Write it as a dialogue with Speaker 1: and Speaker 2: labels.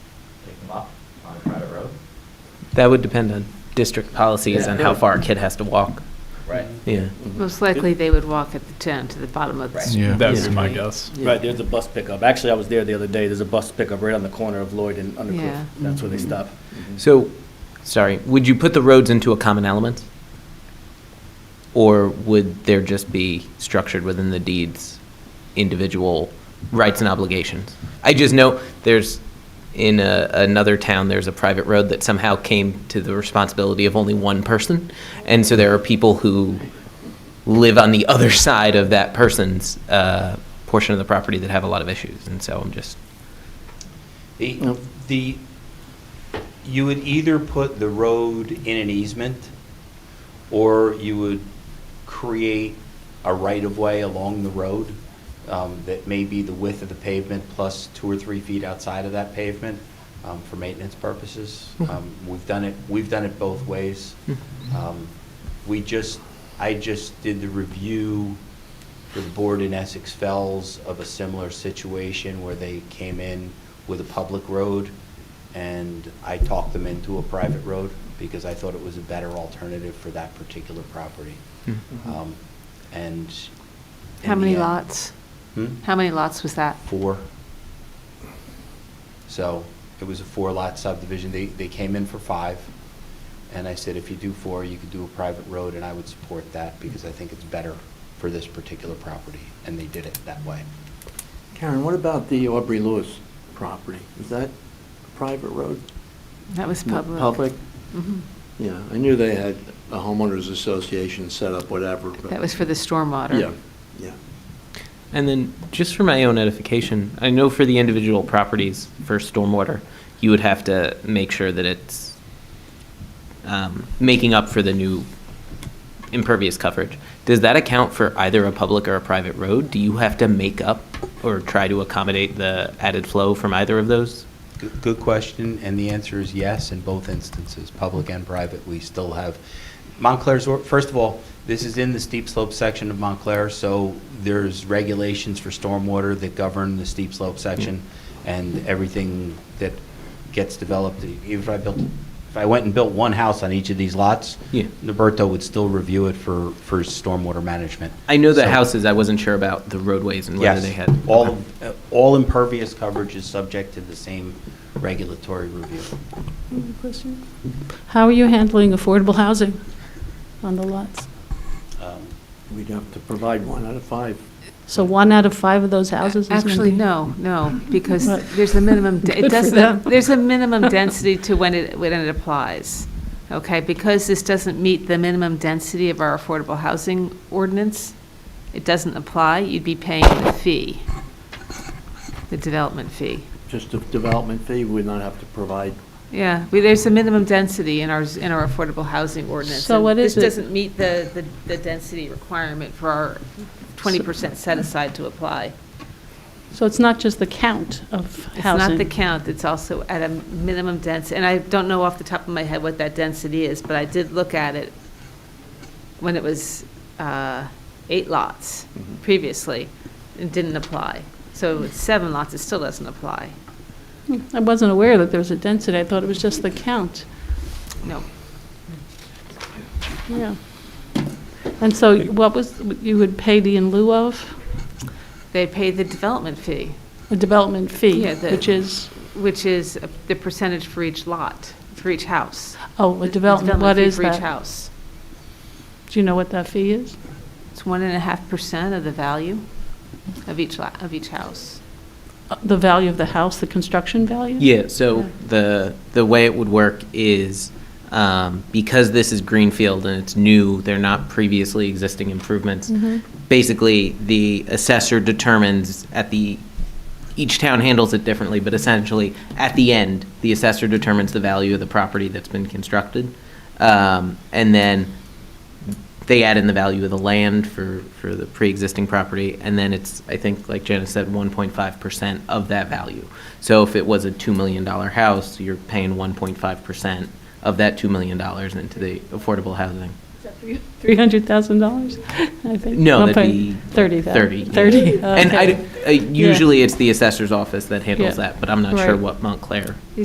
Speaker 1: up on a private road?
Speaker 2: That would depend on district policies
Speaker 1: Yeah.
Speaker 2: on how far a kid has to walk.
Speaker 1: Right.
Speaker 2: Yeah.
Speaker 3: Most likely, they would walk at the 10 to the bottom of the
Speaker 1: Right.
Speaker 3: street.
Speaker 4: Yeah.
Speaker 5: That would be my
Speaker 3: Yeah.
Speaker 5: guess.
Speaker 1: Right, there's a bus pickup. Actually, I was there the other day. There's a bus pickup right on the corner of Lloyd and
Speaker 3: Yeah.
Speaker 1: Undercliff. That's where they stop.
Speaker 2: So, sorry, would you put the roads into a common element? Or would there just be structured within the deeds, individual rights and obligations? I just know there's, in a, another town, there's a private road that somehow came to the responsibility of only one person. And so there are people who live on the other side of that person's, uh, portion of the property that have a lot of issues. And so I'm just,
Speaker 6: The, the- you would either put the road in an easement, or you would create a right-of-way along the road um, that may be the width of the pavement plus two or three feet outside of that pavement um, for maintenance purposes. Um, We've done it, we've done it both ways. Um, We just, I just did the review the board in Essex Fells of a similar situation where they came in with a public road, and I talked them into a private road because I thought it was a better alternative for that particular property. Um, And. in
Speaker 3: How
Speaker 6: the
Speaker 3: many
Speaker 6: end-
Speaker 3: lots?
Speaker 6: Hmm?
Speaker 3: How many lots was that?
Speaker 6: Four. So it was a four-lot subdivision. They, they came in for five, and I said, if you do four, you could do a private road, and I would support that because I think it's better for this particular property, and they did it that way.
Speaker 7: Karen, what about the Aubrey Lewis property? Is that a private road?
Speaker 3: That was public.
Speaker 7: Public?
Speaker 3: Mhm.
Speaker 7: Yeah, I knew they had a homeowners association set up, whatever. but-
Speaker 3: That was for the stormwater.
Speaker 7: Yeah, yeah.
Speaker 2: And then, just for my own edification, I know for the individual properties for stormwater, you would have to make sure that it's um, making up for the new impervious coverage. Does that account for either a public or a private road? Do you have to make up or try to accommodate the added flow from either of those?
Speaker 6: Good- Good question, and the answer is yes in both instances, public and private. We still have, Montclair's, or- first of all, this is in the steep slope section of Montclair, so there's regulations for stormwater that govern the steep slope section, and everything that gets developed, even if I built, if I went and built one house on each of these lots,
Speaker 2: Yeah.
Speaker 6: Roberto would still review it for, for stormwater management.
Speaker 2: I know the
Speaker 6: So-
Speaker 2: houses, I wasn't sure about the roadways and whether
Speaker 6: Yes.
Speaker 2: they had. um,
Speaker 6: All, uh, all impervious coverage is subject to the same regulatory review.
Speaker 8: Question? How are you handling affordable housing on the lots?
Speaker 6: Um,
Speaker 7: We'd have to provide one out of five.
Speaker 8: So one out of five of those houses is going to be...
Speaker 3: Actually, no, no, because
Speaker 8: What?
Speaker 3: there's a minimum, de-
Speaker 8: Good
Speaker 3: it
Speaker 8: for
Speaker 3: doesn't,
Speaker 8: them.
Speaker 3: there's a minimum density to when it, when it applies, okay? Because this doesn't meet the minimum density of our affordable housing ordinance, it doesn't apply, you'd be paying the fee, the development fee.
Speaker 7: Just a development fee, we'd not have to provide.
Speaker 3: Yeah, we, there's a minimum density in our, s- in our affordable housing ordinance.
Speaker 8: So
Speaker 3: and
Speaker 8: what is it?
Speaker 3: This doesn't meet the, the, the density requirement for our twenty percent set aside to apply.
Speaker 8: So it's not just the count of
Speaker 3: It's not
Speaker 8: housing?
Speaker 3: the count, it's also at a minimum density, and I don't know off the top of my head what that density is, but I did look at it when it was uh, eight lots previously, it didn't apply. So it's seven lots, it still doesn't apply.
Speaker 8: Hmm, I wasn't aware that there was a density. I thought it was just the count.
Speaker 3: No,
Speaker 8: Yeah. And so what was, you would pay the in lieu of
Speaker 3: they pay the development fee,
Speaker 8: a development fee,
Speaker 3: Yeah, the-
Speaker 8: which is,
Speaker 3: which is the percentage for each lot, for each house.
Speaker 8: oh, a development, what
Speaker 3: fee
Speaker 8: is
Speaker 3: For each
Speaker 8: that?
Speaker 3: house.
Speaker 8: Do you know what that fee is?
Speaker 3: It's one and a half percent of the value of each lot, of each house.
Speaker 8: Uh, The value of the house, the construction value?
Speaker 2: Yeah, so
Speaker 8: Yeah.
Speaker 2: the, the way it would work is, um, because this is greenfield and it's new, they're not previously existing improvements. Basically, the assessor determines at the, each town handles it differently, but essentially, at the end, the assessor determines the value of the property that's been constructed. Um, and then they add in the value of the land for, for the pre-existing property, and then it's, I think, like Janice said, 1.5% of that value. So if it was a $2 million house, you're paying 1.5% of that $2 million into the affordable housing.
Speaker 8: $300,000, I think.
Speaker 2: No,
Speaker 8: One
Speaker 2: that'd
Speaker 8: point-
Speaker 2: be
Speaker 8: 30,000.
Speaker 2: 30.
Speaker 8: 30,
Speaker 2: And I, uh,
Speaker 8: okay.
Speaker 2: d- uh, usually it's the assessor's office that handles
Speaker 8: Yeah.
Speaker 2: that, but I'm not sure
Speaker 8: Right.
Speaker 2: what Montclair